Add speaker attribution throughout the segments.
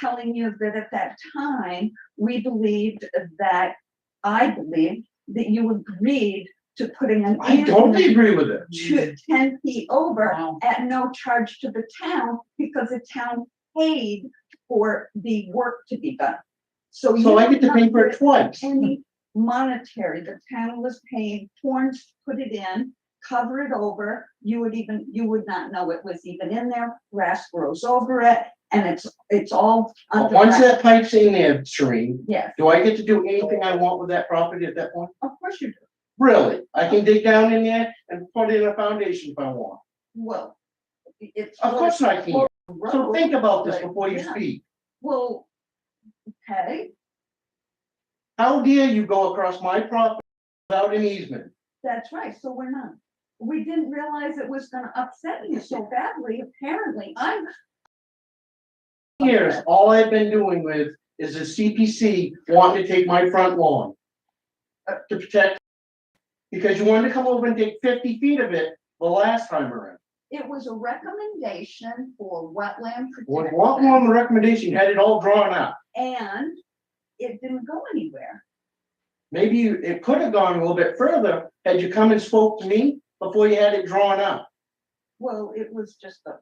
Speaker 1: telling you that at that time, we believed that, I believed that you agreed to putting an
Speaker 2: I totally
Speaker 1: ambulance
Speaker 2: agree with it.
Speaker 1: to ten feet over
Speaker 3: Wow.
Speaker 1: at no charge to the town because the town paid for the work to be done. So.
Speaker 2: So
Speaker 1: you
Speaker 2: I get to pay for it twice.
Speaker 1: any monetary, the town was paying Torrance to put it in, cover it over, you would even, you would not know it was even in there, grass grows over it, and it's, it's all
Speaker 2: But
Speaker 1: under
Speaker 2: Oh, Once
Speaker 1: wraps.
Speaker 2: that pipe's in there, Shereen,
Speaker 1: Yes,
Speaker 2: do I get to do anything I want with that property at that point?
Speaker 1: of course you do,
Speaker 2: Really? I can dig down in there and put in a foundation if I want.
Speaker 1: well, it's.
Speaker 2: Of course I can. So
Speaker 1: road.
Speaker 2: think about this before you
Speaker 1: Yeah.
Speaker 2: speak.
Speaker 1: Well, okay,
Speaker 2: How dare you go across my property without an easement?
Speaker 1: that's right, so we're not, we didn't realize it was gonna upset you so badly, apparently, I'm.
Speaker 2: Years, all I've been doing with is the CPC wanting to take my front lawn uh, to protect. Because you wanted to come over and take fifty feet of it the last time around.
Speaker 1: It was a recommendation for wetland protection.
Speaker 2: Well, Walk along the recommendation, had it all drawn out.
Speaker 1: And it didn't go anywhere.
Speaker 2: Maybe you- it could have gone a little bit further had you come and spoke to me before you had it drawn up.
Speaker 1: Well, it was just a,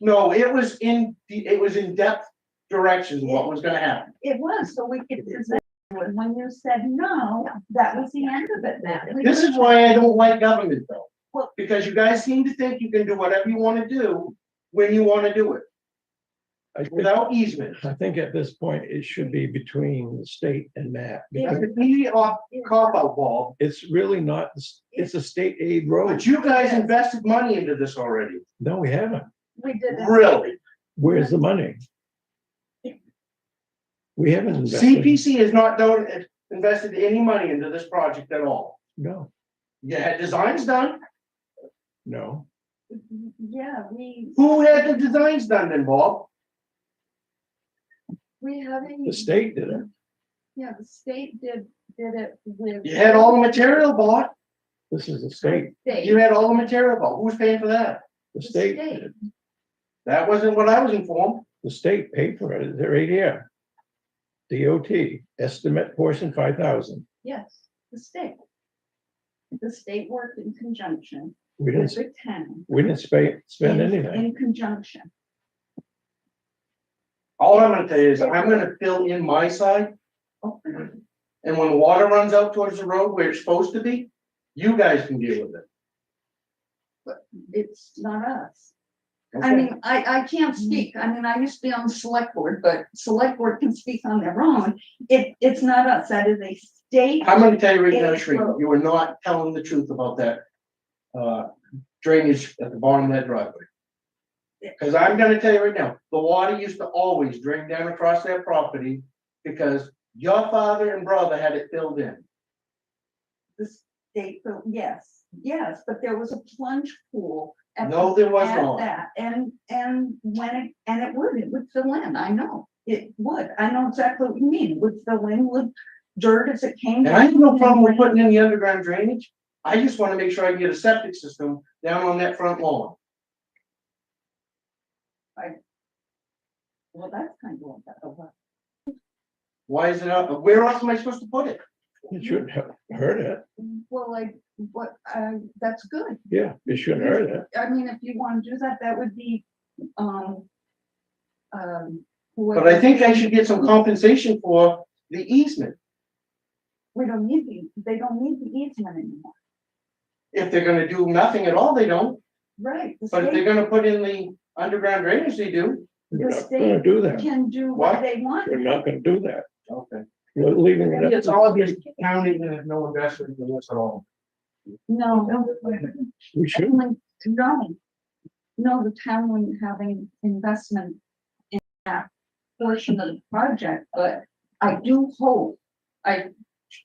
Speaker 2: No, it was in, the- it was in depth directions what was gonna happen.
Speaker 1: it was, so we could, and when you said no, that was the end of it then. We
Speaker 2: This is
Speaker 1: just-
Speaker 2: why I don't like government though.
Speaker 1: Well-
Speaker 2: Because you guys seem to think you can do whatever you wanna do when you wanna do it,
Speaker 4: I think,
Speaker 2: without easement.
Speaker 4: I think at this point, it should be between the state and MAP.
Speaker 1: Yeah.
Speaker 2: That's
Speaker 4: because
Speaker 2: an easy off, cop out ball,
Speaker 4: It's really not, it's a state aid road.
Speaker 2: but you guys invested money into this already,
Speaker 4: No, we haven't.
Speaker 1: We did it.
Speaker 2: really.
Speaker 4: Where's the money? We haven't invested,
Speaker 2: CPC has not done, invested any money into this project at all.
Speaker 4: no,
Speaker 2: You had designs done,
Speaker 4: no.
Speaker 1: Yeah, we,
Speaker 2: who had the designs done then, Bob?
Speaker 1: we haven't,
Speaker 4: The state did it.
Speaker 1: yeah, the state did, did it with.
Speaker 2: You had all the material bought,
Speaker 4: This is the state,
Speaker 2: you
Speaker 1: State,
Speaker 2: had all the material bought, who's paying for that?
Speaker 4: the
Speaker 1: The
Speaker 4: state,
Speaker 1: state.
Speaker 4: did it.
Speaker 2: That wasn't what I was informed,
Speaker 4: the state paid for it. They're right here. DOT estimate portion five thousand.
Speaker 1: yes, the state. The state worked in conjunction
Speaker 4: We
Speaker 1: with
Speaker 4: didn't,
Speaker 1: the town.
Speaker 4: we didn't spa- spend
Speaker 1: in-
Speaker 4: anything.
Speaker 1: In conjunction,
Speaker 2: all I'm gonna tell you is, I'm gonna fill in my side,
Speaker 1: oh,
Speaker 2: and when the water runs out towards the road where it's supposed to be, you guys can deal with it.
Speaker 1: it's not us. I mean, I, I can't speak. I mean, I used to be on the select board, but select board can speak on their own. It, it's not us. That is a state.
Speaker 2: I'm gonna tell you right now,
Speaker 1: It's
Speaker 2: Shereen,
Speaker 1: broke.
Speaker 2: you are not telling the truth about that uh, drainage at the bottom of that driveway.
Speaker 1: Yeah.
Speaker 2: Cause I'm gonna tell you right now, the water used to always drain down across that property because your father and brother had it filled in.
Speaker 1: The state, so yes, yes, but there was a plunge pool. at
Speaker 2: No, there was
Speaker 1: at
Speaker 2: not.
Speaker 1: that, And, and when it, and it would, it would fill in. I know. It would. I know exactly what you mean. It Would fill in with dirt as it came.
Speaker 2: And I have no
Speaker 1: down.
Speaker 2: problem with putting in the underground drainage. I just wanna make sure I can get a septic system down on that front lawn.
Speaker 1: Well, that's kind of a what.
Speaker 2: Why is it up? Where else am I supposed to put it?
Speaker 4: It shouldn't have hurt it.
Speaker 1: Well, I, what, uh, that's good.
Speaker 4: Yeah, it shouldn't hurt it.
Speaker 1: I mean, if you wanna do that, that would be, um, um.
Speaker 2: But I think I should get some compensation for the easement.
Speaker 1: We don't need the, they don't need the easement anymore,
Speaker 2: If they're gonna do nothing at all, they don't.
Speaker 1: right? The
Speaker 2: But if they're
Speaker 1: state
Speaker 2: gonna put in the underground drainage, they do.
Speaker 4: We're
Speaker 1: The
Speaker 4: not gonna do that.
Speaker 1: can do
Speaker 2: What?
Speaker 1: what they want.
Speaker 4: We're not gonna do that.
Speaker 2: Okay.
Speaker 4: We're leaving it up.
Speaker 2: It's
Speaker 4: to-
Speaker 2: all just counting and no investment in this at all.
Speaker 1: No,
Speaker 4: We should.
Speaker 1: no, no. No, the town wouldn't have any investment in that portion of the project, but I do hope, I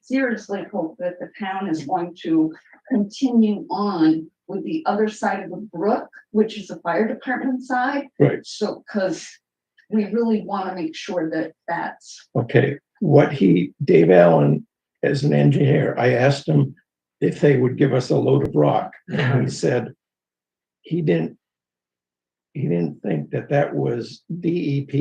Speaker 1: seriously hope that the town is going to continue on with the other side of the brook, which is the fire department side.
Speaker 4: Right.
Speaker 1: So, cause we really want to make sure that that's,
Speaker 4: Okay, what he, Dave Allen, as an engineer, I asked him if they would give us a load of rock.
Speaker 2: Uh-huh.
Speaker 4: And he said he didn't, he didn't think that that was E DEP